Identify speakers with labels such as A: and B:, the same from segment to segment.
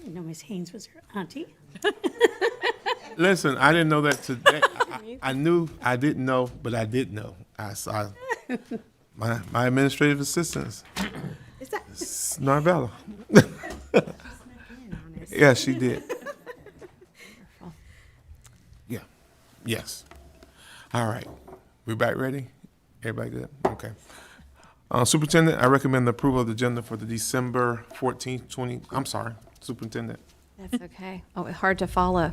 A: didn't know Miss Haynes was her auntie.
B: Listen, I didn't know that today. I, I knew, I didn't know, but I did know. I saw my, my administrative assistants,
C: Is that?
B: Narvella. Yeah, she did. Yeah, yes. All right, we back ready? Everybody good? Okay. Uh, Superintendent, I recommend the approval of the agenda for the December fourteenth, twenty, I'm sorry, Superintendent.
C: That's okay. Oh, hard to follow.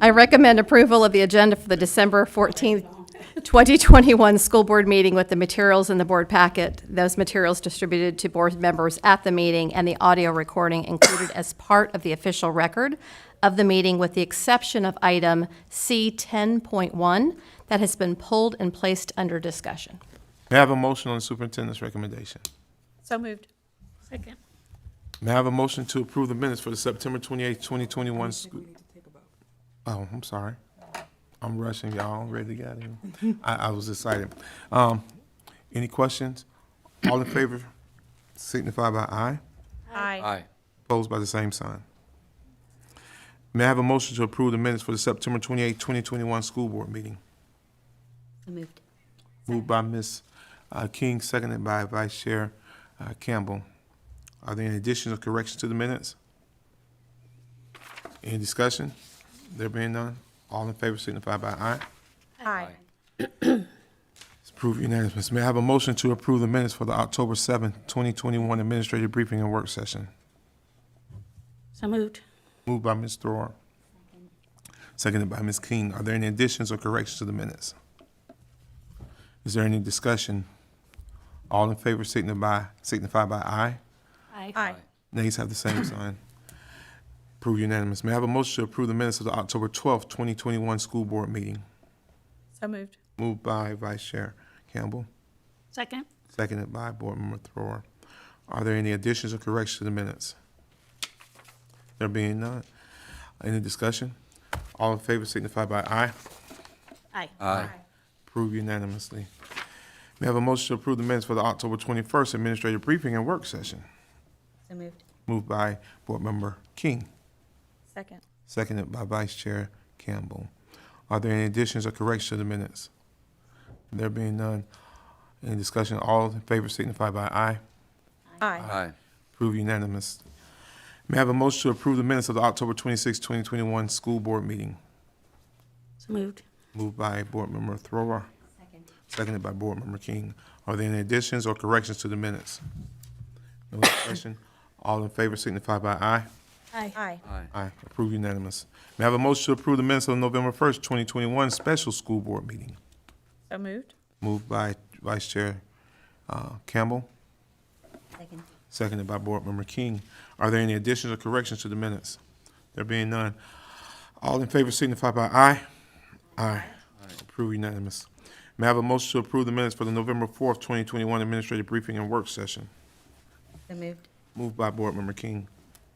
C: I recommend approval of the agenda for the December 14th, 2021 school board meeting with the materials in the board packet. Those materials distributed to board members at the meeting and the audio recording included as part of the official record of the meeting with the exception of item C 10.1 that has been pulled and placed under discussion.
B: May I have a motion on the superintendent's recommendation?
D: So moved.
A: Second.
B: May I have a motion to approve the minutes for the September twenty-eighth, twenty twenty-one? Oh, I'm sorry. I'm rushing, y'all. I'm ready to get out of here. I, I was excited. Um, any questions? All in favor signify by aye,
D: Aye.
E: Aye.
B: opposed by the same sign. May I have a motion to approve the minutes for the September twenty-eighth, twenty twenty-one school board meeting?
A: Moved.
B: Moved by Ms. uh, King, seconded by Vice Chair uh, Campbell. Are there any additions or corrections to the minutes? Any discussion? There being none, all in favor signify by aye.
D: Aye.
B: It's approved unanimously. May I have a motion to approve the minutes for the October seventh, twenty twenty-one Administrative Briefing and Work Session?
A: So moved.
B: Moved by Ms. Throer. Seconded by Ms. King. Are there any additions or corrections to the minutes? Is there any discussion? All in favor signify, signify by aye.
D: Aye.
B: Nays have the same sign. Approve unanimous. May I have a motion to approve the minutes of the October twelfth, twenty twenty-one school board meeting?
D: So moved.
B: Moved by Vice Chair Campbell,
A: Second.
B: seconded by Board Member Throer. Are there any additions or corrections to the minutes? There being none. Any discussion? All in favor signify by aye.
A: Aye.
E: Aye.
B: Approved unanimously. May I have a motion to approve the minutes for the October twenty-first administrative briefing and work session?
D: So moved.
B: Moved by Board Member King.
D: Second.
B: Seconded by Vice Chair Campbell. Are there any additions or corrections to the minutes? There being none, any discussion, all in favor signify by aye.
D: Aye.
E: Aye.
B: Approve unanimous. May I have a motion to approve the minutes of the October 26, 2021 school board meeting?
A: So moved.
B: Moved by Board Member Thrower. Seconded by Board Member King. Are there any additions or corrections to the minutes? No discussion, all in favor signify by aye.
A: Aye.
D: Aye.
E: Aye.
B: Aye, approved unanimous. May I have a motion to approve the minutes of the November first, twenty twenty-one special school board meeting?
D: So moved.
B: Moved by Vice Chair uh, Campbell. Seconded by Board Member King. Are there any additions or corrections to the minutes? There being none, all in favor signify by aye. Aye. Approved unanimous. May I have a motion to approve the minutes for the November fourth, twenty twenty-one administrative briefing and work session?
D: So moved.
B: Moved by Board Member King.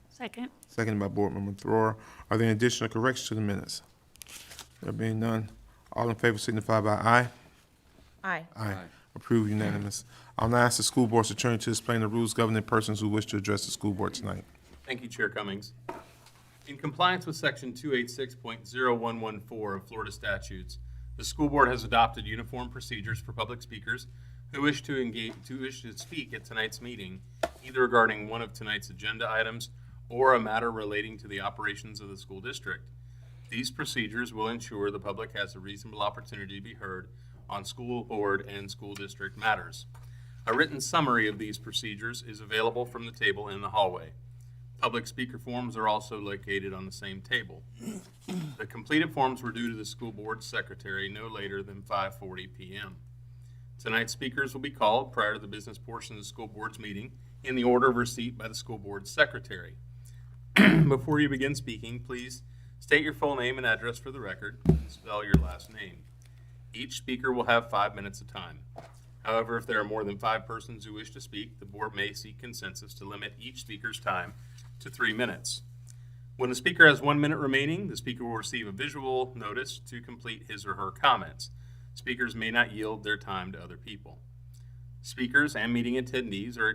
A: Second.
B: Seconded by Board Member Throer. Are there any additional corrections to the minutes? There being none, all in favor signify by aye.
D: Aye.
B: Aye.
E: Aye.
B: Approved unanimous. I'll now ask the school board's attorney to explain the rules governing persons who wish to address the school board tonight.
F: Thank you, Chair Cummings. In compliance with Section 286.0114 of Florida statutes, the school board has adopted uniform procedures for public speakers who wish to engage, who wish to speak at tonight's meeting, either regarding one of tonight's agenda items or a matter relating to the operations of the school district. These procedures will ensure the public has a reasonable opportunity to be heard on school board and school district matters. A written summary of these procedures is available from the table in the hallway. Public speaker forms are also located on the same table. The completed forms were due to the school board secretary no later than 5:40 PM. Tonight's speakers will be called prior to the business portion of the school board's meeting in the order of receipt by the school board secretary. Before you begin speaking, please state your full name and address for the record, and spell your last name. Each speaker will have five minutes of time. However, if there are more than five persons who wish to speak, the board may seek consensus to limit each speaker's time to three minutes. When the speaker has one minute remaining, the speaker will receive a visual notice to complete his or her comments. Speakers may not yield their time to other people. Speakers and meeting attendees are